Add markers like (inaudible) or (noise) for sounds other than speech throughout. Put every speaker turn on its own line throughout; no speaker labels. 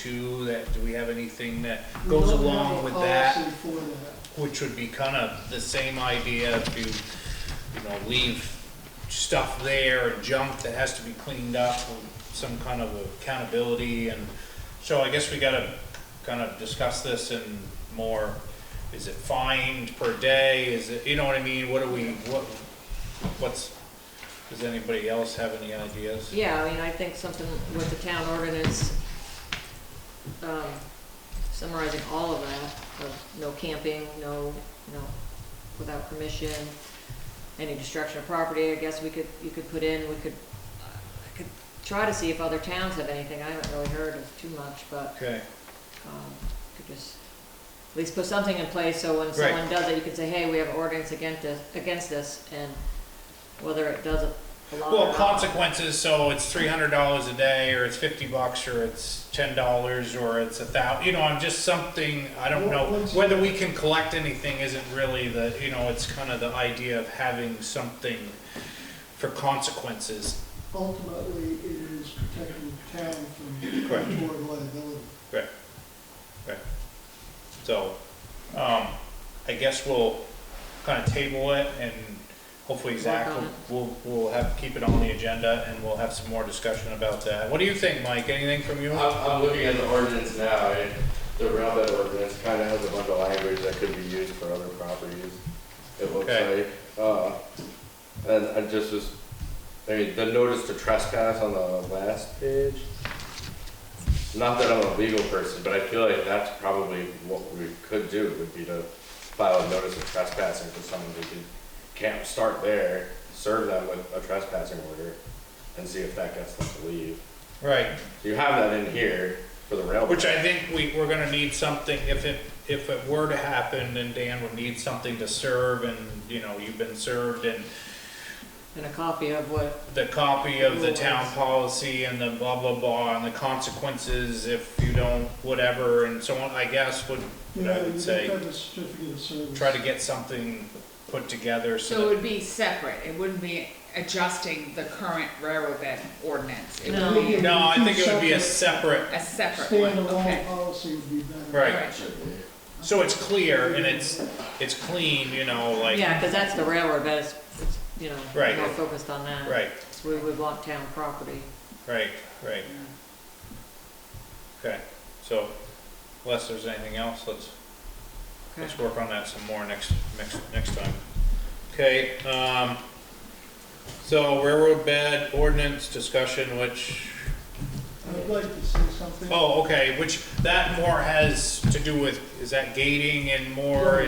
two, that, do we have anything that goes
We don't have
along
a
with that?
policy for that.
Which would be kind of the same idea to, you know, leave stuff there and junk that has to be cleaned up, with some kind of accountability and, so I guess we gotta kind of discuss this in more, is it fined per day, is it, you know what I mean, what do we, what, what's, does anybody else have any ideas?
Yeah, I mean, I think something with the town ordinance, um, summarizing all of that, of no camping, no, no, without permission, any destruction of property, I guess we could, you could put in, we could, I could try to see if other towns have anything, I haven't really heard of too much, but,
Okay,
um, could just, at least put something in place, so when
Right.
someone does it, you can say, hey, we have an ordinance against this, against this, and whether it does belong or
well,
not.
consequences, so it's three hundred dollars a day, or it's fifty bucks, or it's ten dollars, or it's a thou, you know, I'm just something, I don't know.
Well, once-
Whether we can collect anything isn't really the, you know, it's kind of the idea of having something for consequences.
Ultimately, it is protecting the town from
Correct.
toward liability.
Right, right. So, um, I guess we'll kind of table it and hopefully Zach
Work on
will, will will have, keep it on the agenda and we'll have some more discussion about that. What do you think, Mike? Anything from you?
I'm, I'm looking at the ordinance now, and the railbed ordinance kind of has a bunch of language that could be used for other properties, it looks
Okay.
like. Uh, and I just was, I mean, the notice to trespass on the last page. Not that I'm a legal person, but I feel like that's probably what we could do, would be to file a notice of trespassing for someone who could, can't start there, serve them with a trespassing order, and see if that gets them to leave.
Right,
You have that in here for the railroad.
which I think we, we're gonna need something, if it, if it were to happen, then Dan would need something to serve and, you know, you've been served and
And a copy of what,
the copy of the town policy and the blah, blah, blah, and the consequences if you don't, whatever, and so on, I guess would,
You
I
know,
would
you
say-
get a certificate of service.
try to get something put together
So it
so that,
would be separate, it wouldn't be adjusting the current railroad bed ordinance, it
No.
would be
no, I think it would be a separate,
a separate one,
Standalone
okay?
policy would be better.
Right.
Alright.
so it's clear and it's, it's clean, you know, like,
yeah, because that's the railroad, but it's, it's, you know,
Right.
more focused on that.
right,
So We would want town property.
right, right. Okay, so unless there's anything else, let's
Okay.
Let's work on that some more next, next, next time. Okay, um, so railroad bed ordinance discussion, which,
I'd like to say something.
oh, okay, which that more has to do with, is that gating and more
More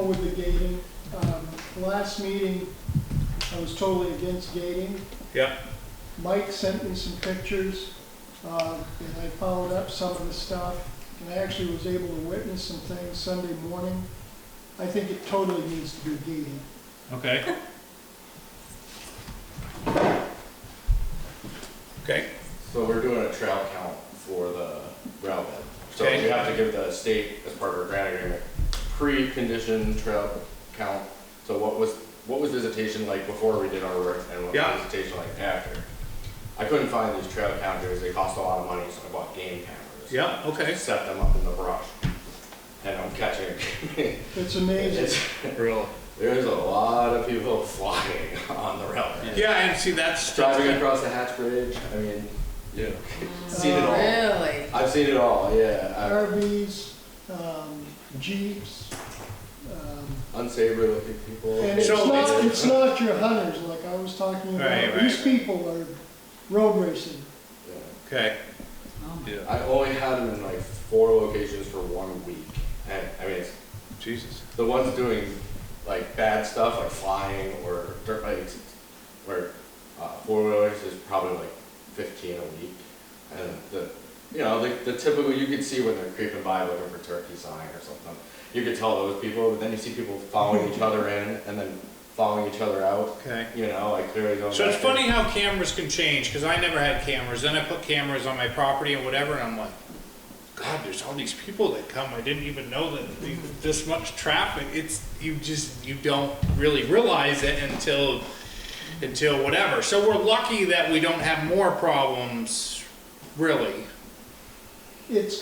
and,
with the gating. Um, Last meeting, I was totally against gating.
yeah,
Mike sent me some pictures, uh, and I followed up some of the stuff, and I actually was able to witness some things Sunday morning. I think it totally needs to be gated.
okay. Okay,
So we're doing a trail count for the rail bed. So
Okay.
we have to give the state, as part of our grant agreement, pre-conditioned trail count. So what was, what was visitation like before we did our work and what
Yeah.
was visitation like after? I couldn't find these trail counters, they cost a lot of money, so I bought game cameras.
yeah, okay.
Set them up in the brush. And I'm catching, (laughs)
It's amazing.
it's, there's a lot of people (laughs) flying on the rail bed.
Yeah, and see, that's,
Driving across the Hatch Bridge, I mean, you seen it all.
Really?
I've seen it all, yeah.
RVs, um, Jeeps, um,
I- Unsavory looking people.
and it's
So
not, it's not your hunters like I was talking
Right,
about.
right,
These
right.
people are road racing.
Yeah.
okay.
Oh my
Yeah.
I only had them in like four locations for one week. And, I mean, it's
Jesus.
the ones doing like bad stuff, like flying or dirt bikes, or uh, four wheelers, is probably like fifteen a week. And the, you know, the, the typical, you can see when they're creeping by looking for turkey sign or something. You could tell those people, but then you see people following each other in and then following each other out.
Okay.
You know, like clearly going.
So it's
back in.
funny how cameras can change, because I never had cameras, then I put cameras on my property and whatever, and I'm like, God, there's all these people that come, I didn't even know that the- this much traffic, it's, you just, you don't really realize it until, until whatever. So we're lucky that we don't have more problems, really.
It's